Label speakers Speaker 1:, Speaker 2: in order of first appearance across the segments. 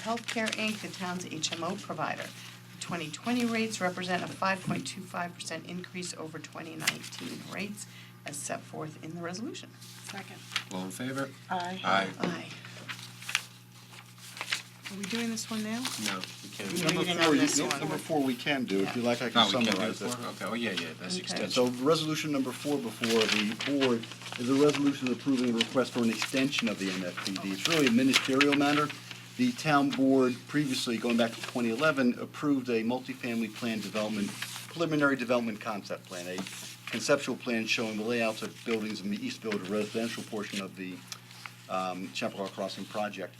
Speaker 1: Healthcare, Inc., the town's HMO provider. The 2020 rates represent a 5.25% increase over 2019 rates as set forth in the resolution.
Speaker 2: Second.
Speaker 3: All in favor?
Speaker 2: Aye.
Speaker 3: Aye.
Speaker 1: Aye. Are we doing this one now?
Speaker 3: No, we can't.
Speaker 1: Reading
Speaker 4: Number
Speaker 1: on
Speaker 4: four, you-
Speaker 1: this
Speaker 4: no,
Speaker 1: one.
Speaker 4: number four we can do, if you like, I
Speaker 3: Oh,
Speaker 4: can
Speaker 3: we can't do
Speaker 4: summarize
Speaker 3: four?
Speaker 4: this.
Speaker 3: Okay, oh, yeah, yeah, that's
Speaker 1: Okay.
Speaker 3: extension.
Speaker 4: So resolution number four before the board is a resolution approving a request for an extension of the MFPD. It's really a ministerial matter. The town board previously, going back to 2011, approved a multifamily plan development, preliminary development concept plan, a conceptual plan showing the layouts of buildings in the East Village residential portion of the um, Chappaqua Crossing project.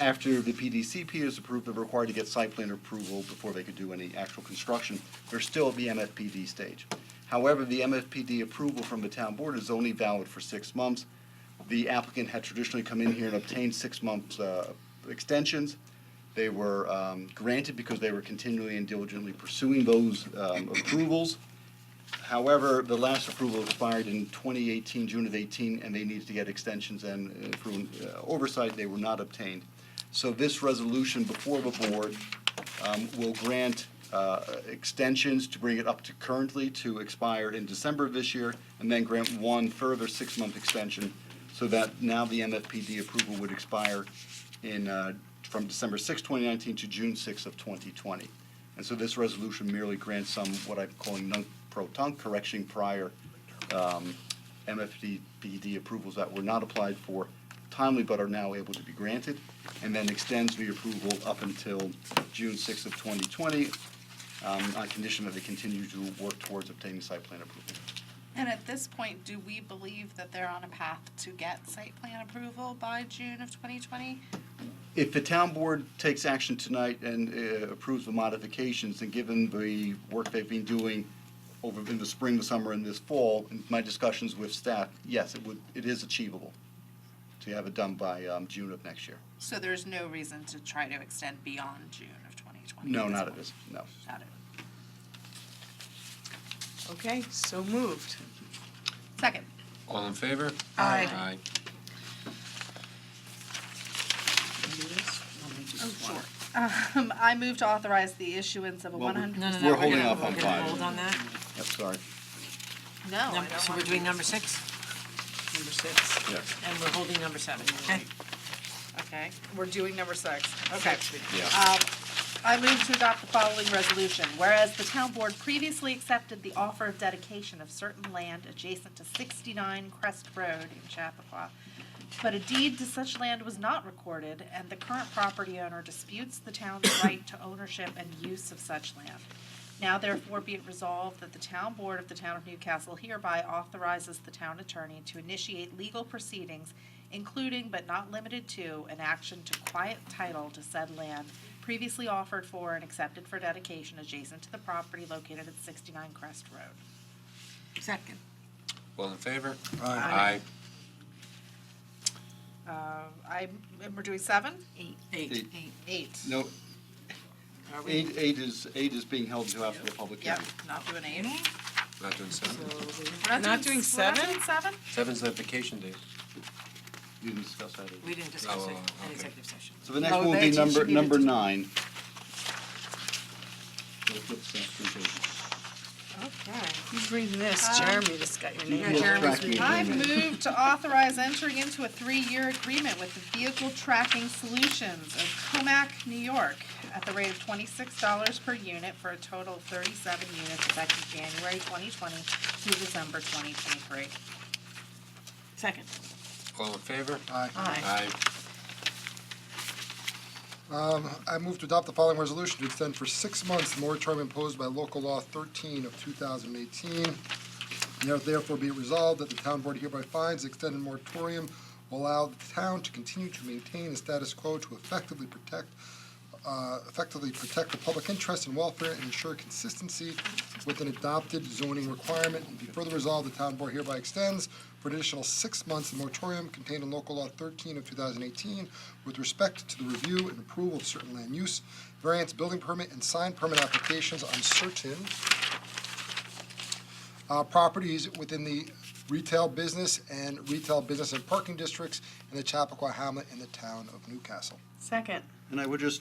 Speaker 4: After the PDCP is approved, they're required to get site plan approval before they could do any actual construction. They're still at the MFPD stage. However, the MFPD approval from the town board is only valid for six months. The applicant had traditionally come in here and obtained six months uh, extensions. They were um, granted because they were continually and diligently pursuing those um, approvals. However, the last approval expired in 2018, June of 18, and they needed to get extensions and uh, through uh, oversight, they were not obtained. So this resolution before the board um, will grant uh, extensions to bring it up to currently to expire in December of this year, and then grant one further six-month extension, so that now the MFPD approval would expire in, uh, from December 6, 2019 to June 6 of 2020. And so this resolution merely grants some, what I'm calling non-proton correction prior um, MFDPD approvals that were not applied for timely but are now able to be granted, and then extends the approval up until June 6th of 2020, um, on condition that they continue to work towards obtaining site plan approval.
Speaker 2: And at this point, do we believe that they're on a path to get site plan approval by June of 2020?
Speaker 4: If the town board takes action tonight and uh, approves the modifications, and given the work they've been doing over in the spring, the summer, and this fall, and my discussions with staff, yes, it would, it is achievable to have it done by um, June of next year.
Speaker 2: So there's no reason to try to extend beyond June of 2020?
Speaker 4: No, not
Speaker 2: point?
Speaker 4: at this, no.
Speaker 2: Not it.
Speaker 1: Okay, so moved.
Speaker 2: Second.
Speaker 3: All in favor?
Speaker 1: Aye.
Speaker 3: Aye.
Speaker 2: Oh, Sure. Um, I move to authorize the issuance of a
Speaker 4: Well, we're-
Speaker 2: 100.
Speaker 5: No, no, no.
Speaker 4: We're
Speaker 5: we're
Speaker 4: holding
Speaker 5: gonna-
Speaker 4: off on
Speaker 5: We're gonna
Speaker 4: five.
Speaker 5: hold on that.
Speaker 4: Yep, sorry,
Speaker 2: No, Oh, I
Speaker 5: Number-
Speaker 2: don't
Speaker 5: So
Speaker 2: wanna
Speaker 5: we're doing
Speaker 2: do-
Speaker 5: number six,
Speaker 1: Number six.
Speaker 4: yes.
Speaker 5: and we're holding number seven. Okay.
Speaker 2: Okay, we're doing number six. Okay.
Speaker 3: Yeah.
Speaker 2: I move to adopt the following resolution. Whereas the town board previously accepted the offer of dedication of certain land adjacent to 69 Crest Road in Chappaqua, but a deed to such land was not recorded, and the current property owner disputes the town's right to ownership and use of such land. Now therefore be it resolved that the town board of the town of Newcastle hereby authorizes the town attorney to initiate legal proceedings, including but not limited to an action to quiet title to said land previously offered for and accepted for dedication adjacent to the property located at sixty-nine Crest Road.
Speaker 5: Second.
Speaker 3: All in favor?
Speaker 5: Aye.
Speaker 2: Uh, I, and we're doing seven?
Speaker 5: Eight. Eight.
Speaker 4: Eight.
Speaker 5: Eight.
Speaker 2: Eight.
Speaker 4: No,
Speaker 5: Are we?
Speaker 4: eight, eight is, eight is being held until after the public
Speaker 2: Yep,
Speaker 4: hearing.
Speaker 2: not doing eight.
Speaker 3: Aye. Not doing seven?
Speaker 2: We're
Speaker 1: Not doing
Speaker 2: we're not
Speaker 1: seven?
Speaker 2: doing seven?
Speaker 3: Seven's the vacation day.
Speaker 4: You didn't discuss that either.
Speaker 5: We didn't discuss
Speaker 3: Oh,
Speaker 5: it in
Speaker 3: okay.
Speaker 5: executive session.
Speaker 4: So the next
Speaker 1: Oh,
Speaker 4: one will be
Speaker 1: that
Speaker 4: number,
Speaker 1: should be
Speaker 4: number
Speaker 1: the-
Speaker 4: nine. We'll flip that through pages.
Speaker 5: Okay.
Speaker 1: Who's reading this?
Speaker 2: Um,
Speaker 1: Jeremy just got your
Speaker 4: You
Speaker 1: name.
Speaker 4: lost
Speaker 5: Jeremy's
Speaker 4: track of
Speaker 5: reading.
Speaker 4: your
Speaker 2: I
Speaker 4: name.
Speaker 2: move to authorize entering into a three-year agreement with the Vehicle Tracking Solutions of Comac, New York, at the rate of twenty-six dollars per unit for a total of thirty-seven units effective January twenty twenty through December twenty twenty-three.
Speaker 5: Second.
Speaker 3: All in favor?
Speaker 1: Aye.
Speaker 3: Aye.
Speaker 6: Um, I move to adopt the following resolution to extend for six months the moratorium imposed by local law thirteen of two thousand and eighteen. Now therefore be it resolved that the town board hereby finds the extended moratorium will allow the town to continue to maintain a status quo to effectively protect, uh, effectively protect the public interest and welfare and ensure consistency with an adopted zoning requirement. And be further resolved, the town board hereby extends for an additional six months the moratorium contained in local law thirteen of two thousand eighteen with respect to the review and approval of certain land use, variance, building permit, and sign permit applications on certain uh, properties within the retail business and retail business and parking districts in the Chappaqua Hamlet and the town of Newcastle.
Speaker 1: Second.
Speaker 4: And I would just